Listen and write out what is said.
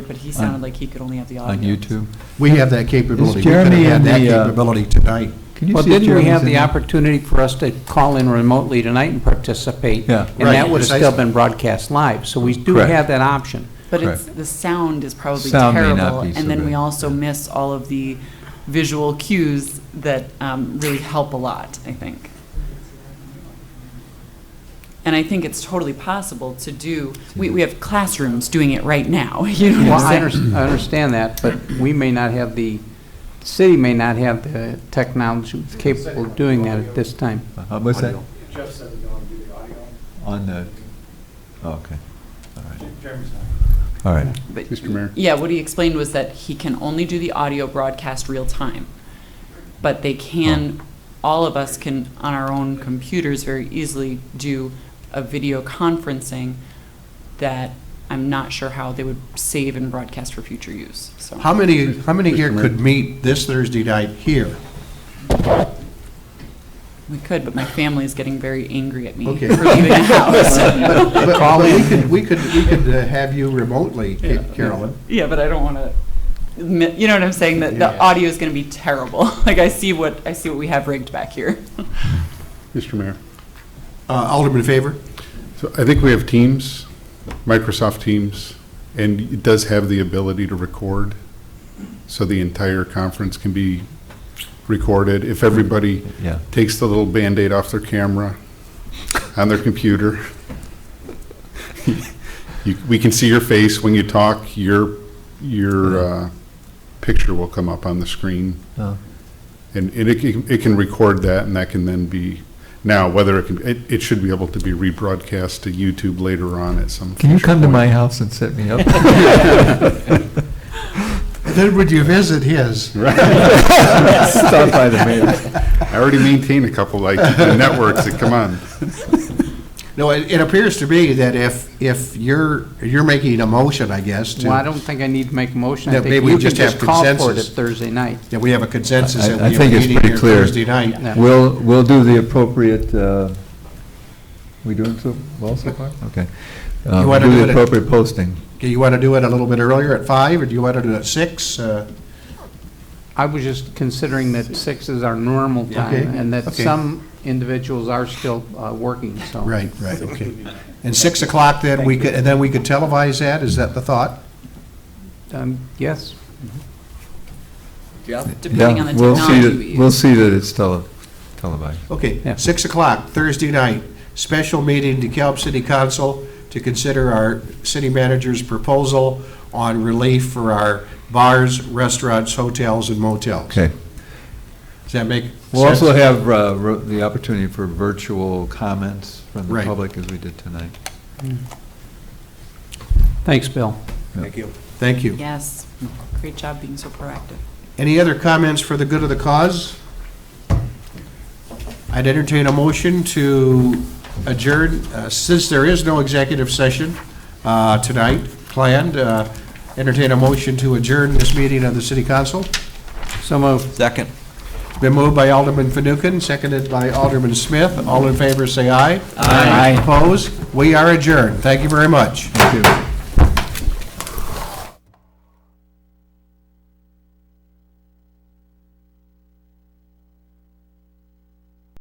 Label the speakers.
Speaker 1: but he sounded like he could only have the audio.
Speaker 2: on YouTube.
Speaker 3: We have that capability. We
Speaker 4: Is
Speaker 3: could have
Speaker 4: Jeremy
Speaker 3: had
Speaker 4: in
Speaker 3: that
Speaker 4: the, uh,
Speaker 3: capability tonight.
Speaker 2: Can you
Speaker 4: Well,
Speaker 2: see if
Speaker 4: didn't we
Speaker 2: Jeremy's
Speaker 4: have
Speaker 2: in
Speaker 4: the
Speaker 2: there?
Speaker 4: opportunity for us to call in remotely tonight and participate?
Speaker 2: Yeah.
Speaker 4: And that
Speaker 3: Right,
Speaker 4: would have still
Speaker 3: precisely.
Speaker 4: been broadcast live, so we do
Speaker 2: Correct.
Speaker 4: have that option.
Speaker 1: But it's,
Speaker 2: Correct.
Speaker 1: the sound is probably
Speaker 2: Sound may not
Speaker 1: terrible,
Speaker 2: be so
Speaker 1: and then we
Speaker 2: good,
Speaker 1: also
Speaker 2: yeah.
Speaker 1: miss all of the visual cues that um, really help a lot, I think. And I think it's totally possible to do, we, we have classrooms doing it right now, you know
Speaker 4: Well,
Speaker 1: what
Speaker 4: I
Speaker 1: I'm saying?
Speaker 4: understand, I understand that, but we may not have the, the city may not have the technology capable of doing that at this time.
Speaker 2: Uh, What's that?
Speaker 3: Audio.
Speaker 5: Jeff said we don't do the audio.
Speaker 2: On the, oh, okay, all right,
Speaker 5: Jeremy's not.
Speaker 2: all right.
Speaker 1: But-
Speaker 3: Mr. Mayor.
Speaker 1: Yeah, what he explained was that he can only do the audio broadcast real time. But they can, all of us can, on our own computers, very easily do a video conferencing that I'm not sure how they would save and broadcast for future use, so.
Speaker 3: How many, how many here could meet this Thursday night here?
Speaker 1: We could, but my family is getting very angry at me for
Speaker 3: Okay.
Speaker 1: leaving the house.
Speaker 3: But but- but we could, we could, we could uh, have you remotely, Ca- Carolyn.
Speaker 1: Yeah, but I don't want to, you know what I'm saying, that the
Speaker 3: Yeah.
Speaker 1: audio is going to be terrible. Like, I see what, I see what we have rigged back here.
Speaker 6: Mr. Mayor,
Speaker 3: Uh, Alderman Favor?
Speaker 6: so I think we have Teams, Microsoft Teams, and it does have the ability to record, so the entire conference can be recorded. If everybody
Speaker 2: Yeah.
Speaker 6: takes the little Band-Aid off their camera on their computer, you- we can see your face when you talk, your, your uh, picture will come up on the screen.
Speaker 2: Oh.
Speaker 6: And and it, can- it can record that, and that can then be, now, whether it can, it, it should be able to be rebroadcast to YouTube later on at some.
Speaker 2: Can you
Speaker 6: future
Speaker 2: come to
Speaker 6: point.
Speaker 2: my house and set me up?
Speaker 3: Then would you visit his?
Speaker 2: Stop by the mayor.
Speaker 6: I already maintain a couple, like, networks that come on.
Speaker 3: No, it, it appears to me that if, if you're, you're making a motion, I guess,
Speaker 4: Well, I
Speaker 3: to,
Speaker 4: don't think I need to make a motion. I
Speaker 3: Yeah,
Speaker 4: think
Speaker 3: maybe we
Speaker 4: you can
Speaker 3: just have
Speaker 4: call for it
Speaker 3: consensus.
Speaker 4: at Thursday night.
Speaker 3: that we have a consensus
Speaker 2: I-
Speaker 3: that
Speaker 2: I
Speaker 3: we are
Speaker 2: think it's
Speaker 3: meeting
Speaker 2: pretty
Speaker 3: here
Speaker 2: clear.
Speaker 3: Thursday night.
Speaker 4: Yeah.
Speaker 2: We'll, we'll do the appropriate, uh, we doing so well so far? Okay. Uh,
Speaker 3: You wanna do
Speaker 2: Do
Speaker 3: it
Speaker 2: the
Speaker 3: at-
Speaker 2: appropriate posting.
Speaker 3: Do you want to do it a little bit earlier at five, or do you want to do it at six? Uh,
Speaker 4: I was just considering that six is our normal
Speaker 3: Okay,
Speaker 4: time, and that
Speaker 3: okay.
Speaker 4: some individuals are still uh, working, so.
Speaker 3: Right, right, okay. And six o'clock then, we could, and then we could televise that, is that the thought?
Speaker 4: Um, Yes,
Speaker 1: Depending on the
Speaker 2: Yeah, we'll see
Speaker 1: technology
Speaker 2: that-
Speaker 1: we
Speaker 2: We'll
Speaker 1: use.
Speaker 2: see that it's tele, televised.
Speaker 3: Okay,
Speaker 4: Yeah.
Speaker 3: 6 o'clock, Thursday night, special meeting to Caleb City Council to consider our city manager's proposal on relief for our bars, restaurants, hotels, and motels.
Speaker 2: Okay.
Speaker 3: Does that make sense?
Speaker 2: We'll also have uh, ro- the opportunity for virtual comments from the
Speaker 3: Right.
Speaker 2: public as we did tonight.
Speaker 4: thanks, Bill.
Speaker 3: Thank you. Thank you.
Speaker 1: Yes, great job being so proactive.
Speaker 3: Any other comments for the good of the cause? I'd entertain a motion to adjourn, uh, since there is no executive session uh, tonight planned, uh, entertain a motion to adjourn this meeting of the city council.
Speaker 4: So moved.
Speaker 2: Second.
Speaker 3: Been moved by Alderman Fanouken, seconded by Alderman Smith. All in favor, say aye. Aye. Opposed? We are adjourned. Thank you very much.
Speaker 2: Thank you.